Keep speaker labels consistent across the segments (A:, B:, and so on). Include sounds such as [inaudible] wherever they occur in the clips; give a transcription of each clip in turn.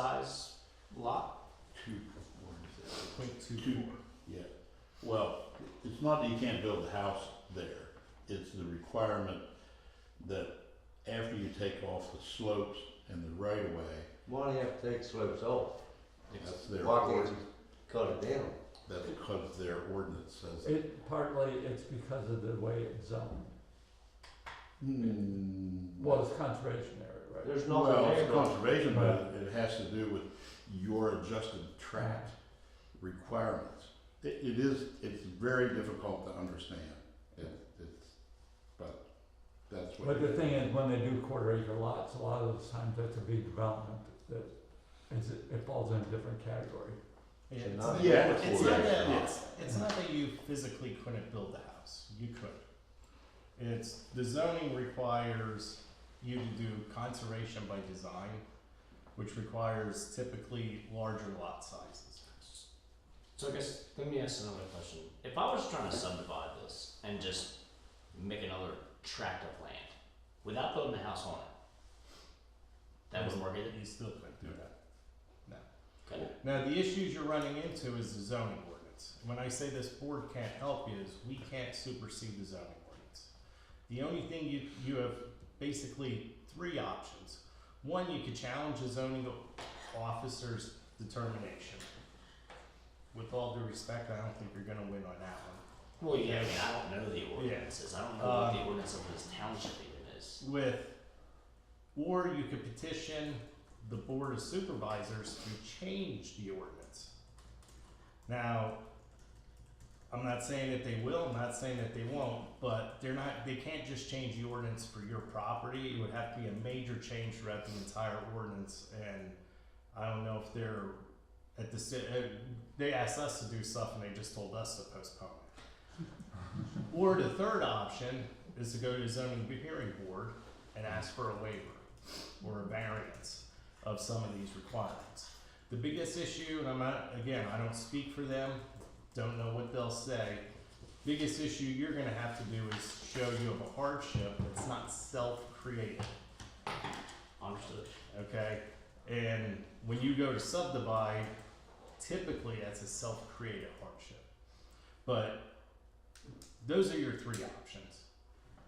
A: size lot?
B: two, what is it?
C: Point two
B: Two.
C: four.
B: Yeah, well, it's not that you can't build a house there, it's the requirement that after you take off the slopes and the right of way,
D: Why do you have to take slopes off?
B: that's their
D: Why can't
B: ord-
D: you cut it down?
B: that's because their ordinance says.
E: It partly it's because of the way it's zoned.
B: Hmm.
E: Well, it's conservation area, right?
D: There's nothing
B: Well,
D: there.
B: it's conservation, but
E: Right.
B: it has to do with your adjusted tract requirements. It, it is, it's very difficult to understand, it, it's, but that's what.
E: But the
B: it-
E: thing is, when they do quarter acre lots, a lot of those times that's a big development that is, it falls in a different category.
C: Yeah,
D: So
C: it's
D: not-
C: not,
B: Yeah,
C: it's
B: yeah,
C: not that,
B: yeah.
C: it's, it's not that you physically couldn't build the house, you could. It's, the zoning requires you to do conservation by design, which requires typically larger lot sizes.
A: So I guess let me ask another question. If I was trying to subdivide this and just make another tract of land without building a house on it, that wouldn't work either.
C: You still couldn't do that.
A: Okay.
C: Now, the issues you're running into is the zoning ordinance. When I say this board can't help is we can't supersede the zoning ordinance. The only thing you, you have basically three options. One, you could challenge the zoning officer's determination. With all due respect, I don't think you're gonna win on that one.
A: Well, yeah, I mean, I don't know the ordinances. I don't know what the
C: Um,
A: ordinance of this township even is.
C: With, or you could petition the board of supervisors to change the ordinance. Now, I'm not saying that they will, I'm not saying that they won't, but they're not, they can't just change the ordinance for your property. It would have to be a major change throughout the entire ordinance and I don't know if they're at the, ci- uh, they asked us to do stuff and they just told us to postpone it. Or the third option is to go to the zoning hearing board and ask for a waiver or a variance of some of these requirements. The biggest issue, and I'm not, again, I don't speak for them, don't know what they'll say. Biggest issue you're gonna have to do is show you have a hardship that's not self-created,
A: Understood.
C: okay? And when you go to subdivide, typically that's a self-created hardship. But those are your three options.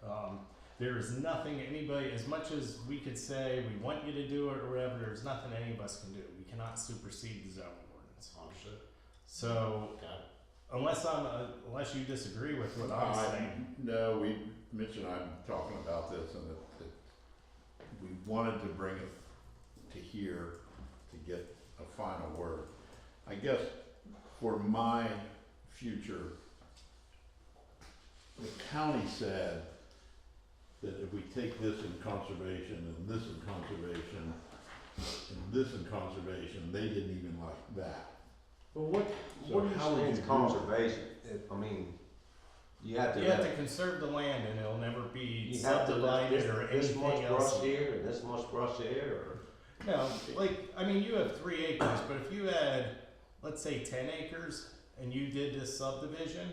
C: Um, there is nothing anybody, as much as we could say we want you to do it or whatever, there's nothing any of us can do. We cannot supersede the zoning ordinance.
A: Understood.
C: So
A: Got it.
C: unless I'm, uh, unless you disagree with what I'm
B: I-
C: saying,
B: No, we, Mitch and I have been talking about this and it, it, we wanted to bring it to here to get a final word. I guess for my future, the county said that if we take this in conservation and this in conservation and this in conservation, they didn't even like that.
D: Well, what,
B: So
D: what do
B: how would
D: you
B: you
D: think
B: do
D: conservation? If- I mean, you have to.
C: you have to conserve the land and it'll never be
D: you have to let
C: subdivided
D: this,
C: or
D: this much
C: anything
D: brush
C: else.
D: here and this much brush there, or
C: No, like, I mean, you have three acres, but if you had, let's say, ten acres and you did this subdivision,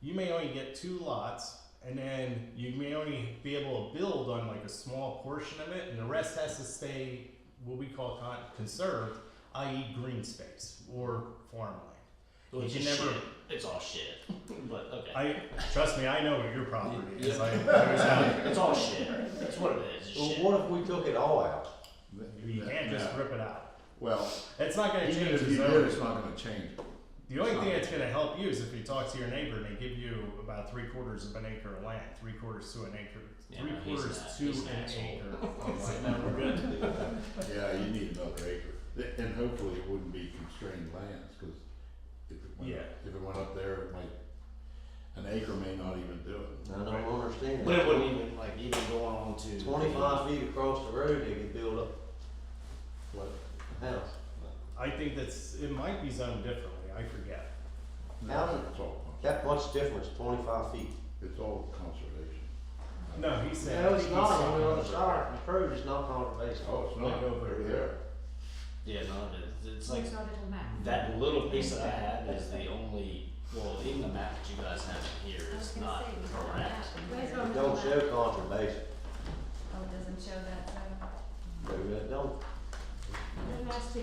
C: you may only get two lots and then you may only be able to build on like a small portion of it and the rest has to stay what we call con- conserved, i.e. green space or farmland.
A: Well, it's
C: You
A: just
C: never-
A: shit. It's all shit. but okay.
C: I, trust me, I know what your property is.
A: Yeah.
C: I, I was out
A: it's all shit. That's what it is. It's
D: well,
A: shit.
D: what if we took it all out?
A: [laughs]
C: You can't just rip it out.
B: Well,
C: It's not gonna
B: even
C: change
B: if
C: the
B: you did,
C: zoning.
B: it's not gonna change.
C: The only thing that's gonna help you is if you talk to your neighbor and they give you about three quarters of an acre of land, three quarters to an acre,
A: Yeah,
C: three
A: no, he's
C: quarters
A: not-
C: to
A: he's an
C: an
A: asshole. [laughs]
C: acre. Oh,
A: So, no, we're good.
B: Yeah, you need another acre, Th- and hopefully it wouldn't be constrained lands, cause if it went,
C: Yeah.
B: if it went up there, it might, an acre may not even do it.
D: I don't understand.
A: But it wouldn't even like even go on to
D: Twenty-five feet across the road, they could build up
B: What,
D: a house.
C: I think that's, it might be zoned differently, I forget.
D: How-
B: no, it's all, cons-
D: That much difference, twenty-five feet.
B: it's all conservation.
C: No, he said.
D: No,
C: I
D: it's
C: think he
D: not,
C: said-
D: on the other side, the road is not conservation.
B: Oh, it's
C: Like
B: not
C: over
B: over
C: there.
B: there.
A: Yeah, no, it is. It's like
F: Where's our little map?
A: that little piece that I had is the only. Well, even the map that you guys have in here
F: I was
A: is
F: gonna
A: not
F: say, we don't
A: correct.
F: have- Where's our
D: It
F: little
D: Don't show
F: map?
D: conservation,
F: Oh, it doesn't show that, so.
D: they really don't.
F: The last